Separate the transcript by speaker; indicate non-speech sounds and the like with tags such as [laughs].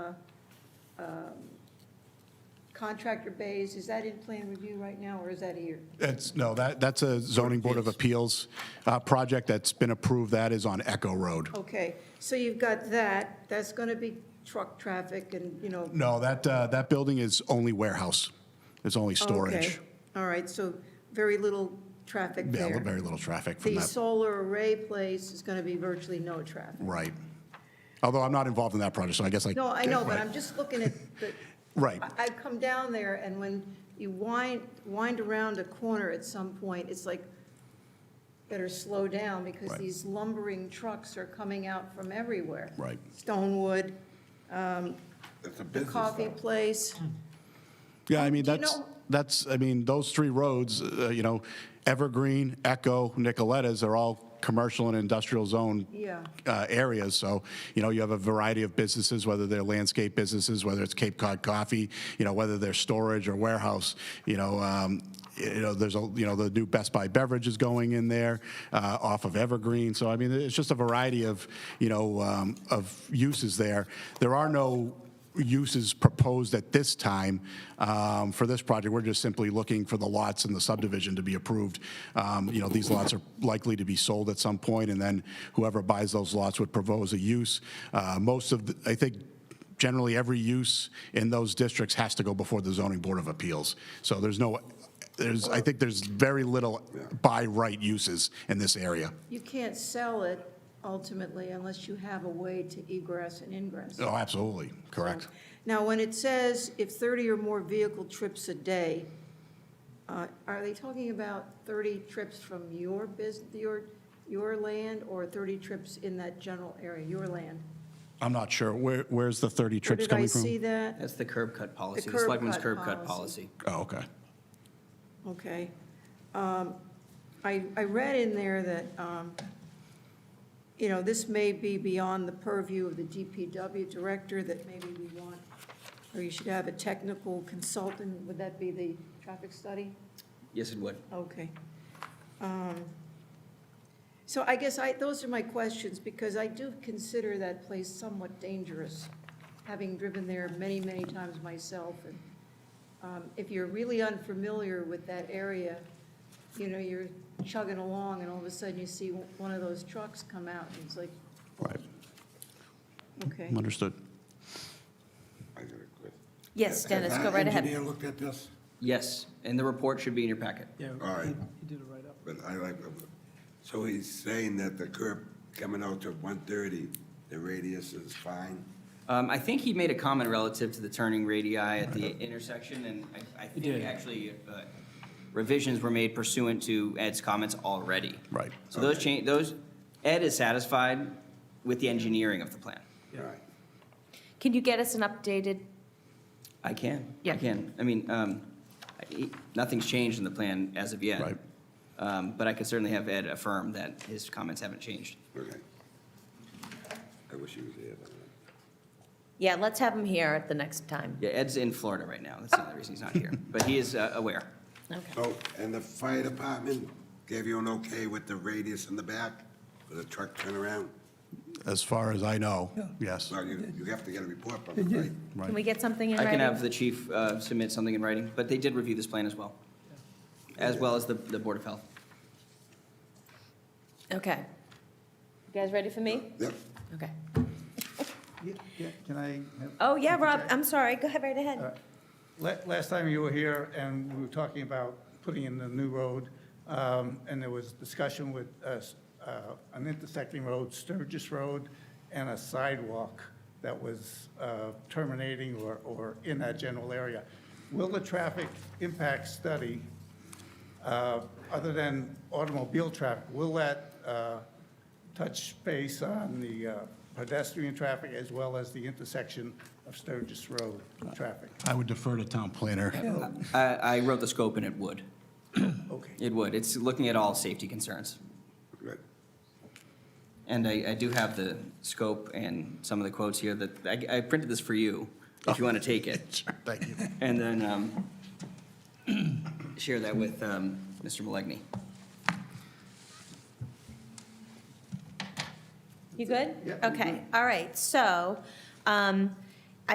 Speaker 1: um, contractor bays, is that in plan review right now, or is that here?
Speaker 2: That's, no, that, that's a zoning board of appeals uh, project that's been approved. That is on Echo Road.
Speaker 1: Okay, so you've got that, that's going to be truck traffic and, you know.
Speaker 2: No, that, uh, that building is only warehouse. It's
Speaker 1: Oh,
Speaker 2: only
Speaker 1: Okay.
Speaker 2: storage.
Speaker 1: All right, so very little traffic
Speaker 2: Yeah,
Speaker 1: there.
Speaker 2: very little traffic from
Speaker 1: The
Speaker 2: that.
Speaker 1: solar array place is going to be virtually no traffic.
Speaker 2: Right. Although I'm not involved in that project, so I guess I.
Speaker 1: No, I know, but
Speaker 2: Right.
Speaker 1: I'm just looking at
Speaker 2: [laughs]
Speaker 1: the.
Speaker 2: Right.
Speaker 1: I- I've come down there, and when you wind, wind around a corner at some point, it's like, better slow down, because
Speaker 2: Right.
Speaker 1: these lumbering trucks are coming out from everywhere.
Speaker 2: Right.
Speaker 1: Stonewood, um,
Speaker 3: It's a
Speaker 1: the
Speaker 3: business.
Speaker 1: coffee
Speaker 3: though.
Speaker 1: place.
Speaker 2: Yeah, I mean,
Speaker 1: Do you
Speaker 2: that's,
Speaker 1: know-
Speaker 2: that's, I mean, those three roads, uh, you know, Evergreen, Echo, Nicoletta's are all commercial and industrial zone
Speaker 1: Yeah.
Speaker 2: uh, areas. So, you know, you have a variety of businesses, whether they're landscape businesses, whether it's Cape Cod Coffee, you know, whether they're storage or warehouse, you know, um, you know, there's a, you know, the new Best Buy beverage is going in there uh, off of Evergreen. So, I mean, it's just a variety of, you know, um, of uses there. There are no uses proposed at this time um, for this project. We're just simply looking for the lots in the subdivision to be approved. Um, You know, these lots are likely to be sold at some point, and then whoever buys those lots would propose a use. Uh, Most of, the- I think generally every use in those districts has to go before the zoning board of appeals. So there's no, there's, I think there's very little by right uses in this area.
Speaker 1: You can't sell it ultimately unless you have a way to egress and ingress.
Speaker 2: Oh, absolutely, correct.
Speaker 1: Now, when it says if 30 or more vehicle trips a day, uh, are they talking about 30 trips from your business, your, your land, or 30 trips in that general area, your land?
Speaker 2: I'm not sure, where, where's the 30
Speaker 1: Where
Speaker 2: trips coming from?
Speaker 1: Did I see that?
Speaker 4: That's the curb cut policy, the
Speaker 1: curb
Speaker 4: selectman's
Speaker 1: cut
Speaker 4: curb cut
Speaker 1: policy.
Speaker 4: policy.
Speaker 2: Oh, okay.
Speaker 1: Okay. Um, I, I read in there that, um, you know, this may be beyond the purview of the DPW director, that maybe we want, or you should have a technical consultant, would that be the traffic study?
Speaker 4: Yes, it would.
Speaker 1: Okay. Um, So I guess I, those are my questions, because I do consider that place somewhat dangerous, having driven there many, many times myself. And um, If you're really unfamiliar with that area, you know, you're chugging along, and all of a sudden you see one of those trucks come out, and it's like,
Speaker 2: Right,
Speaker 1: okay.
Speaker 2: understood.
Speaker 3: I got a question.
Speaker 5: Yes, Dennis, go right
Speaker 3: Has our
Speaker 5: ahead.
Speaker 3: engineer looked at this?
Speaker 4: Yes, and the report should be in your packet.
Speaker 6: Yeah,
Speaker 3: All right.
Speaker 6: he he did it right up.
Speaker 3: But I like, so he's saying that the curb coming out to 130, the radius is fine?
Speaker 4: Um, I think he made a comment relative to the turning radii at the intersection, and I, I think
Speaker 6: did.
Speaker 4: actually uh, revisions were made pursuant to Ed's comments already.
Speaker 2: Right.
Speaker 4: So those change, those, Ed is satisfied with the engineering of the plan.
Speaker 3: All right.
Speaker 5: Can you get us an updated,
Speaker 4: I can.
Speaker 5: Yeah.
Speaker 4: I can. I mean, um, I- nothing's changed in the plan as of yet.
Speaker 2: Right.
Speaker 4: Um, but I could certainly have Ed affirm that his comments haven't changed.
Speaker 3: Okay. I wish he was here. but-
Speaker 5: yeah, let's have him here at the next time.
Speaker 4: Yeah, Ed's in Florida right now. That's the only reason he's not here, but he is uh, aware.
Speaker 5: Okay.
Speaker 3: So, and the fire department gave you an okay with the radius in the back for the truck turnaround?
Speaker 2: As far as I know, yes.
Speaker 3: Well, you, you have to get a report from them,
Speaker 6: Yeah.
Speaker 3: right?
Speaker 5: Can we get something in
Speaker 4: I
Speaker 5: writing?
Speaker 4: can have the chief uh, submit something in writing, but they did review this plan as well, as well as the, the Board of Health.
Speaker 5: Okay. You guys ready for me?
Speaker 3: Yep.
Speaker 5: Okay.
Speaker 6: Yeah, yeah, Can I have?
Speaker 5: Oh, yeah, Rob, I'm sorry, go ahead, right
Speaker 6: All
Speaker 3: Uh,
Speaker 5: ahead.
Speaker 6: right. La- Last time you were here and we were talking about putting in the new road, um, and there was discussion with uh, s- uh, an intersecting road, Sturgis Road, and a sidewalk that was uh, terminating or, or in that general area. Will the traffic impact study, uh, other than automobile traffic, will that uh, touch base on the uh, pedestrian traffic as well as the intersection of Sturgis Road traffic?
Speaker 2: I would defer to town planner.
Speaker 4: I, I wrote the scope and it
Speaker 2: [clears throat]
Speaker 4: would.
Speaker 6: Okay.
Speaker 4: It would. It's looking at all safety concerns.
Speaker 3: Good.
Speaker 4: And I, I do have the scope and some of the quotes here that, I, I printed this for you, if you want to take it.
Speaker 2: Oh. [laughs] Thank you.
Speaker 4: And then um, [clears throat] share that with um, Mr. Malegny.
Speaker 5: You good?
Speaker 6: Yeah, I'm
Speaker 5: Okay, all right, so, um,